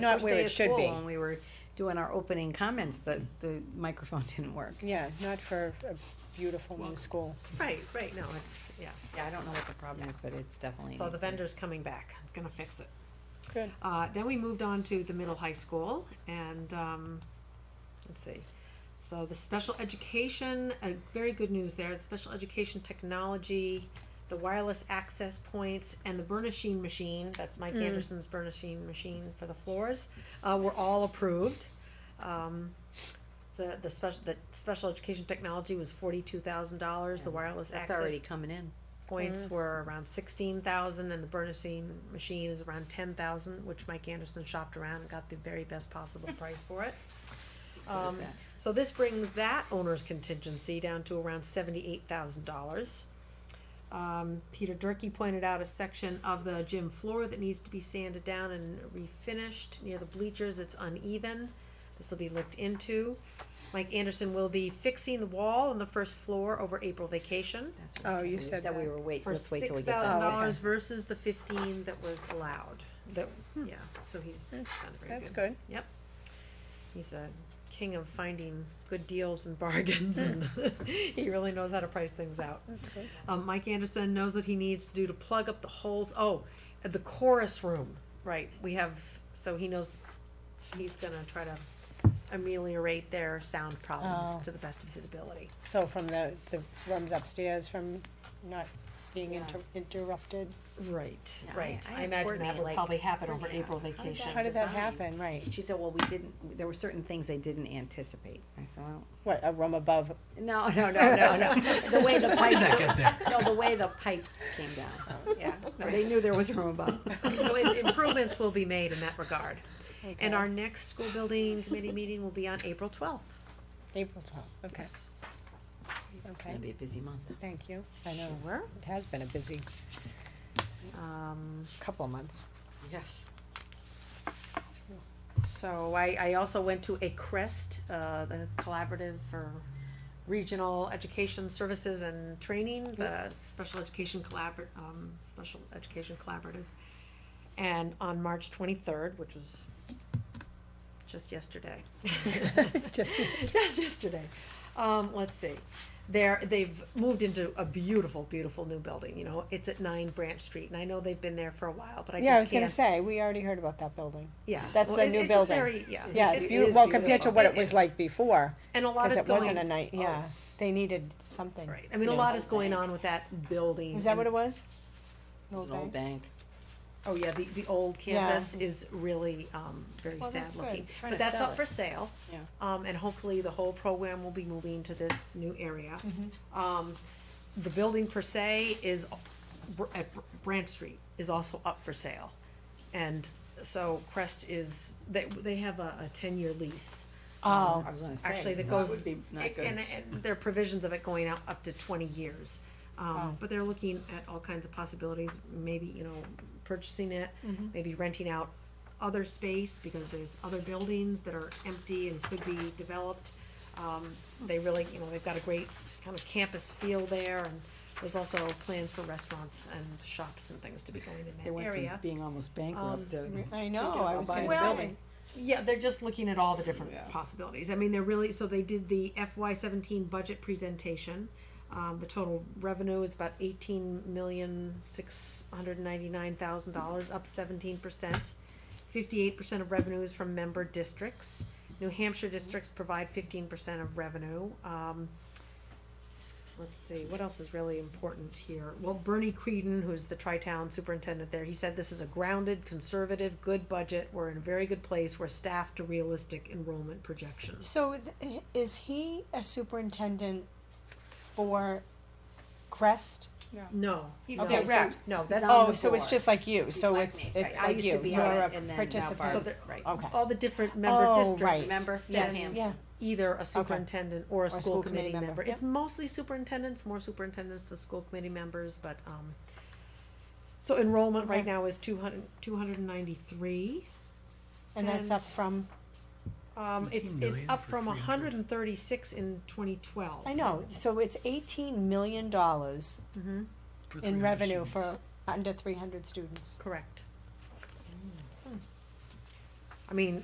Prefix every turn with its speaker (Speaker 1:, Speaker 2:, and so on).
Speaker 1: Not
Speaker 2: first
Speaker 1: where
Speaker 2: day
Speaker 1: it
Speaker 2: of
Speaker 1: should
Speaker 2: school
Speaker 1: be.
Speaker 2: When we were doing our opening comments, the, the microphone didn't work.
Speaker 1: Yeah, not for a beautiful new school.
Speaker 3: Right, right, no, it's, yeah.
Speaker 2: Yeah, I don't know what the problem is, but it's definitely.
Speaker 3: So the
Speaker 2: needs to-
Speaker 3: vendor's coming back, gonna fix it.
Speaker 1: Good.
Speaker 3: Uh, then we moved on to the middle high school and, um, let's see. So the special education, uh, very good news there, the special education technology, the wireless access points and the burnishing machine, that's Mike Anderson's burnishing machine for the floors, uh, were all approved. Um, the, the special, the special education technology was forty-two thousand dollars, the
Speaker 2: Yeah,
Speaker 3: wireless
Speaker 2: That's
Speaker 3: access
Speaker 2: already coming in.
Speaker 3: points were around sixteen thousand and the burnishing machine is around ten thousand, which Mike Anderson shopped around and got the very best possible price for it. Um,
Speaker 2: that.
Speaker 3: so this brings that owner's contingency down to around seventy-eight thousand dollars. Um, Peter Durkee pointed out a section of the gym floor that needs to be sanded down and refinished near the bleachers, it's uneven. This will be looked into. Mike Anderson will be fixing the wall on the first floor over April vacation
Speaker 2: That's what I
Speaker 1: Oh, you
Speaker 2: We
Speaker 1: said
Speaker 2: we
Speaker 1: that.
Speaker 2: were wait,
Speaker 3: for
Speaker 2: let's wait till
Speaker 3: six
Speaker 2: we get that.
Speaker 3: thousand
Speaker 1: Oh,
Speaker 3: dollars
Speaker 1: okay.
Speaker 3: versus the fifteen that was allowed. That, yeah, so he's done very
Speaker 1: That's good.
Speaker 3: Yep. He's a king of finding good deals and bargains and he really knows how to price things out.
Speaker 1: That's good.
Speaker 3: Um, Mike Anderson knows what he needs to do to plug up the holes. Oh, the chorus room, right, we have, so he knows, he's gonna try to ameliorate their sound
Speaker 1: Oh.
Speaker 3: problems to the best of his ability.
Speaker 1: So from the, the rooms upstairs from not being
Speaker 3: Yeah.
Speaker 1: inter- interrupted?
Speaker 3: Right,
Speaker 2: Yeah, I- I
Speaker 3: right. I
Speaker 2: asked
Speaker 3: imagine
Speaker 2: Courtney,
Speaker 3: that will
Speaker 2: like,
Speaker 3: probably happen over
Speaker 2: Courtney,
Speaker 3: April
Speaker 2: how did
Speaker 3: vacation.
Speaker 1: How did that
Speaker 2: Design.
Speaker 1: happen, right?
Speaker 2: She said, well, we didn't, there were certain things they didn't anticipate. I said, well,
Speaker 1: What, a room above?
Speaker 2: no, no, no, no, no. The way the
Speaker 4: How'd that
Speaker 2: pipes,
Speaker 4: get there?
Speaker 2: no, the way the pipes came down. Yeah, they knew there was room above.
Speaker 3: So i- improvements will be made in that regard.
Speaker 1: Okay.
Speaker 3: And our next school building committee meeting will be on April twelfth.
Speaker 1: April twelfth, okay,
Speaker 2: It's gonna
Speaker 1: okay.
Speaker 2: be a busy month.
Speaker 1: Thank you. I know,
Speaker 3: Sure.
Speaker 1: it has been a busy
Speaker 3: Um,
Speaker 1: couple of months.
Speaker 2: Yes.
Speaker 3: so I, I also went to a CREST, uh, the Collaborative for Regional Education Services and Training, the Special Education Collabor, um, Special Education Collaborative. And on March twenty-third, which was just yesterday.
Speaker 1: Just,
Speaker 3: just yesterday. Um, let's see. They're, they've moved into a beautiful, beautiful new building, you know, it's at nine Branch Street, and I know they've been there for a while, but I just
Speaker 1: yeah, I was gonna
Speaker 3: can't-
Speaker 1: say, we already heard about that building.
Speaker 3: Yeah.
Speaker 1: that's
Speaker 3: Well,
Speaker 1: the
Speaker 3: it's-
Speaker 1: new
Speaker 3: it's just
Speaker 1: building.
Speaker 3: very- Yeah.
Speaker 1: Yeah,
Speaker 3: It
Speaker 1: it's
Speaker 3: is
Speaker 1: beautiful, well, compared to
Speaker 3: beautiful.
Speaker 1: what it
Speaker 3: It
Speaker 1: was
Speaker 3: is.
Speaker 1: like before,
Speaker 3: And a lot
Speaker 1: cause
Speaker 3: is
Speaker 1: it wasn't a
Speaker 3: going,
Speaker 1: night, yeah, they needed something.
Speaker 3: right, I mean, a
Speaker 2: Yeah.
Speaker 3: lot is going on with that building.
Speaker 1: Is that what it
Speaker 3: and-
Speaker 1: was?
Speaker 2: Mm-hmm. It's an old bank.
Speaker 3: Oh, yeah, the, the old
Speaker 1: Yeah.
Speaker 3: canvas is really, um, very
Speaker 1: Well,
Speaker 3: sad
Speaker 1: that's good.
Speaker 3: looking,
Speaker 2: Trying
Speaker 3: but
Speaker 2: to
Speaker 3: that's
Speaker 2: sell
Speaker 3: up
Speaker 2: it.
Speaker 3: for sale.
Speaker 2: Yeah.
Speaker 3: Um, and hopefully the whole program will be moving to this new area. Um, the building per se is, up- Br- at Br- Branch Street is also up for sale. And so Crest is, they, they have a, a ten-year lease.
Speaker 1: Oh,
Speaker 2: I was gonna say.
Speaker 3: Actually, that
Speaker 2: that
Speaker 3: goes,
Speaker 2: would be not
Speaker 3: it-
Speaker 2: good.
Speaker 3: and, and there are provisions of it going out up to twenty years. Um,
Speaker 2: Oh.
Speaker 1: Wow.
Speaker 3: but they're looking at all kinds of possibilities, maybe, you know, purchasing it,
Speaker 2: Mm-hmm.
Speaker 3: maybe renting out other space, because there's other buildings that are empty and could be developed. Um, they really, you know, they've got a great kind of campus feel there, and there's also a plan for restaurants and shops and things to be going
Speaker 2: They
Speaker 3: in that
Speaker 2: went from
Speaker 3: area.
Speaker 2: being almost bankrupt to.
Speaker 1: I
Speaker 2: thinking
Speaker 1: know, I
Speaker 2: about
Speaker 1: was
Speaker 2: buying a
Speaker 1: gonna
Speaker 3: Well,
Speaker 1: say.
Speaker 2: building.
Speaker 3: Yeah, they're just looking at all the different
Speaker 2: Yeah.
Speaker 3: possibilities. I mean, they're really, so they did the FY seventeen budget presentation. Um, the total revenue is about eighteen million, six hundred ninety-nine thousand dollars, up seventeen percent. Fifty-eight percent of revenue is from member districts. New Hampshire districts provide fifteen percent of revenue. Um, let's see, what else is really important here? Well, Bernie Creedon, who's the tri-town superintendent there, he said this is a grounded, conservative, good budget. We're in a very good place. We're staffed to realistic enrollment projections.
Speaker 1: So th- is he a superintendent for Crest?
Speaker 3: No. He's
Speaker 1: Okay,
Speaker 3: okay,
Speaker 1: so-
Speaker 3: rep. No, that's on
Speaker 1: Oh,
Speaker 3: the
Speaker 1: so it's
Speaker 3: board.
Speaker 1: just like you, so
Speaker 2: like
Speaker 1: it's,
Speaker 2: me,
Speaker 1: it's
Speaker 2: right. I
Speaker 1: like
Speaker 2: used to
Speaker 1: you,
Speaker 2: be
Speaker 1: you're
Speaker 2: on
Speaker 1: a
Speaker 2: it and then now
Speaker 1: participant.
Speaker 3: So
Speaker 2: Barb-
Speaker 3: there-
Speaker 2: Right.
Speaker 1: Okay,
Speaker 3: all the different member
Speaker 1: Oh,
Speaker 3: districts.
Speaker 2: Remember?
Speaker 3: Yes.
Speaker 2: Sam.
Speaker 1: yeah,
Speaker 3: Either a superintendent or a school committee member.
Speaker 1: yeah.
Speaker 3: It's mostly superintendents, more superintendents than school committee members, but, um, so enrollment right
Speaker 1: Okay.
Speaker 3: now is two hundred, two hundred and ninety-three.
Speaker 1: and that's
Speaker 3: And-
Speaker 1: up from,
Speaker 3: Um, it's,
Speaker 4: 18
Speaker 3: it's
Speaker 4: million
Speaker 3: up
Speaker 4: for
Speaker 3: from
Speaker 4: 300.
Speaker 3: hundred and thirty-six in twenty twelve.
Speaker 1: I know, so it's eighteen million dollars
Speaker 3: Mm-hmm,
Speaker 4: For
Speaker 1: in
Speaker 4: 300
Speaker 1: revenue
Speaker 4: students.
Speaker 1: for under three hundred students.
Speaker 3: correct. I mean,